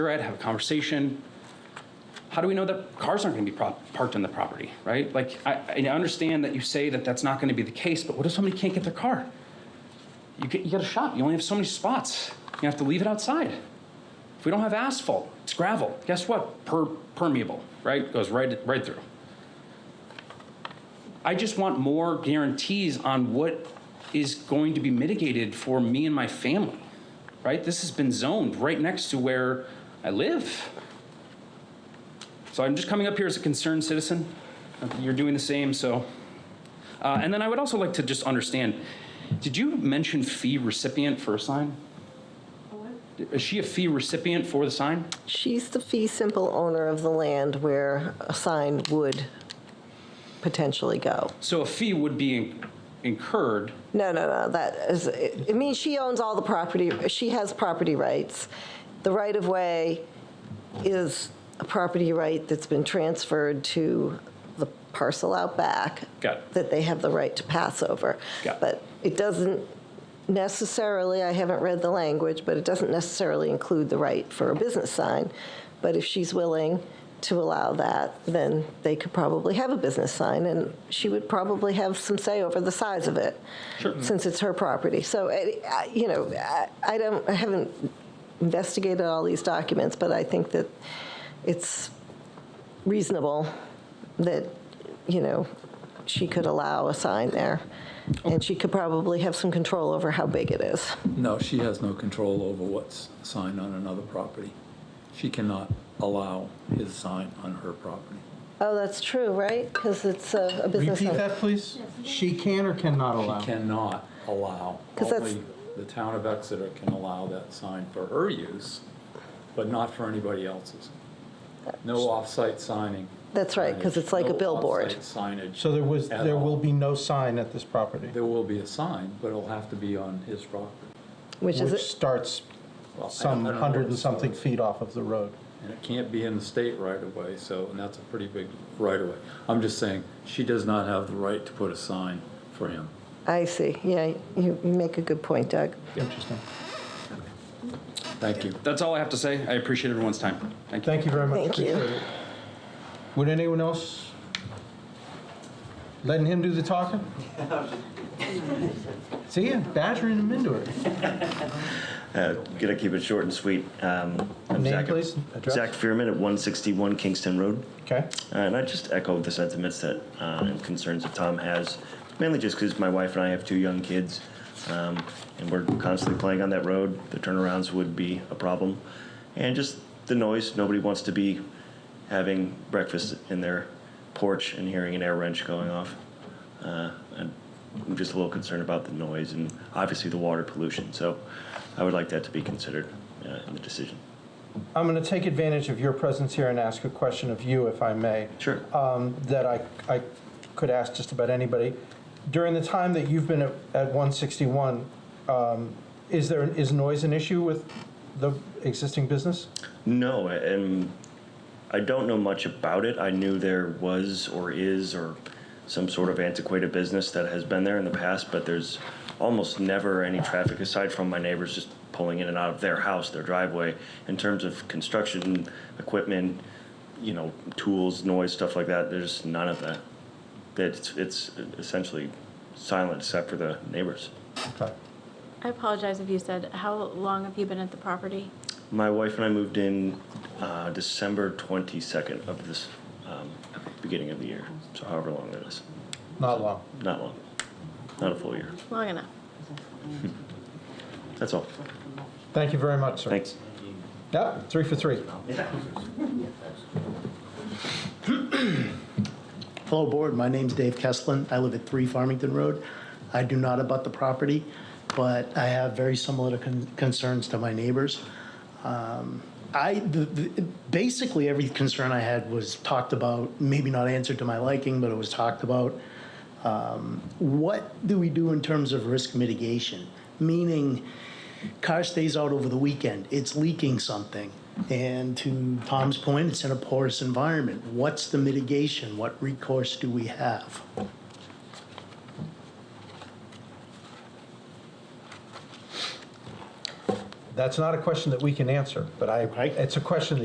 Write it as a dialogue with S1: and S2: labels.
S1: cigarette, have a conversation. How do we know that cars aren't going to be prop- parked on the property, right? Like, I, I understand that you say that that's not going to be the case, but what if somebody can't get their car? You, ca- you got a shop, you only have so many spots. You have to leave it outside. If we don't have asphalt, it's gravel. Guess what? Per- permeable, right? Goes right, right through. I just want more guarantees on what is going to be mitigated for me and my family, right? This has been zoned right next to where I live. So I'm just coming up here as a concerned citizen. You're doing the same, so. Uh, and then I would also like to just understand, did you mention fee recipient for a sign? Is she a fee recipient for the sign?
S2: She's the fee simple owner of the land where a sign would potentially go.
S1: So a fee would be in- incurred,
S2: No, no, no, that is, it it means she owns all the property, she has property rights. The right-of-way is a property right that's been transferred to the parcel out back.
S1: Got it.
S2: That they have the right to pass over.
S1: Got it.
S2: But it doesn't necessarily, I haven't read the language, but it doesn't necessarily include the right for a business sign. But if she's willing to allow that, then they could probably have a business sign, and she would probably have some say over the size of it, since it's her property. So, it- I- you know, I- I don't, I haven't investigated all these documents, but I think that it's reasonable that, you know, she could allow a sign there. And she could probably have some control over how big it is.
S3: No, she has no control over what's signed on another property. She cannot allow his sign on her property.
S2: Oh, that's true, right? Because it's a a business.
S4: Repeat
S2: owner.
S4: that, please? She can or cannot allow?
S3: She cannot allow,
S2: 'Cause that's-
S3: only the town of Exeter can allow that sign for her use, but not for anybody else's. No off-site signing.
S2: That's right, 'cause it's like a
S3: No
S2: billboard.
S3: off-site Signage.
S4: So there was,
S3: at
S4: there
S3: all.
S4: will be no sign at this property,
S3: There will be a sign, but it'll have to be on his property.
S2: Which is,
S4: which
S2: it-
S4: starts
S3: Well, I
S4: some
S3: don't- I don't know
S4: hundred
S3: what
S4: and
S3: it
S4: something
S3: says.
S4: feet off of the road.
S3: And it can't be in the state right of way, so, and that's a pretty big right of way. I'm just saying, she does not have the right to put a sign for him.
S2: I see, yeah, you you make a good point, Doug.
S4: Interesting.
S3: Thank you.
S1: that's all I have to say. I appreciate everyone's time. Thank you.
S4: Thank you very much.
S2: Thank you.
S4: Appreciate it. Would anyone else? Letting him do the talking? See, ya, badgering him into it.
S5: Uh, Gonna keep it short and sweet. Um, I'm
S4: Name,
S5: Zach-
S4: please, address.
S5: Zach Fearman at 161 Kingston Road.
S4: Okay.
S5: Uh, And I just echo the sentiments that, uh, and concerns that Tom has, mainly just because my wife and I have two young kids, um, and we're constantly playing on that road. The turnarounds would be a problem. And just the noise, nobody wants to be having breakfast in their porch and hearing an air wrench going off. Uh, and I'm just a little concerned about the noise and obviously the water pollution. So I would like that to be considered uh, in the decision.
S4: I'm going to take advantage of your presence here and ask a question of you, if I may.
S5: Sure.
S4: um, that I, I could ask just about anybody. During the time that you've been at, at 161, um, is there is noise an issue with the existing business?
S5: No, and I don't know much about it. I knew there was or is or some sort of antiquated business that has been there in the past, but there's almost never any traffic aside from my neighbors just pulling in and out of their house, their driveway. In terms of construction equipment, you know, tools, noise, stuff like that, there's none of that. It's, it's essentially silent except for the neighbors.
S4: Okay.
S6: I apologize if you said, how long have you been at the property?
S5: My wife and I moved in uh, December 22nd of this um, beginning of the year, so however long that is.
S4: Not long.
S5: Not long, not a full year.
S6: Long enough.
S5: That's all.
S4: Thank you very much, sir.
S5: Thanks.
S4: Yep, three for three.
S7: Hello, Board. My name's Dave Kesslin. I live at 3 Farmington Road. I do not abut the property, but I have very similar con- concerns to my neighbors. Um, I, the- the- basically, every concern I had was talked about, maybe not answered to my liking, but it was talked about. Um, What do we do in terms of risk mitigation? Meaning, car stays out over the weekend, it's leaking something. And to Tom's point, it's in a porous environment. What's the mitigation? What recourse do we have?
S4: That's not a question that we can answer, but I,
S7: Okay.
S4: it's a question that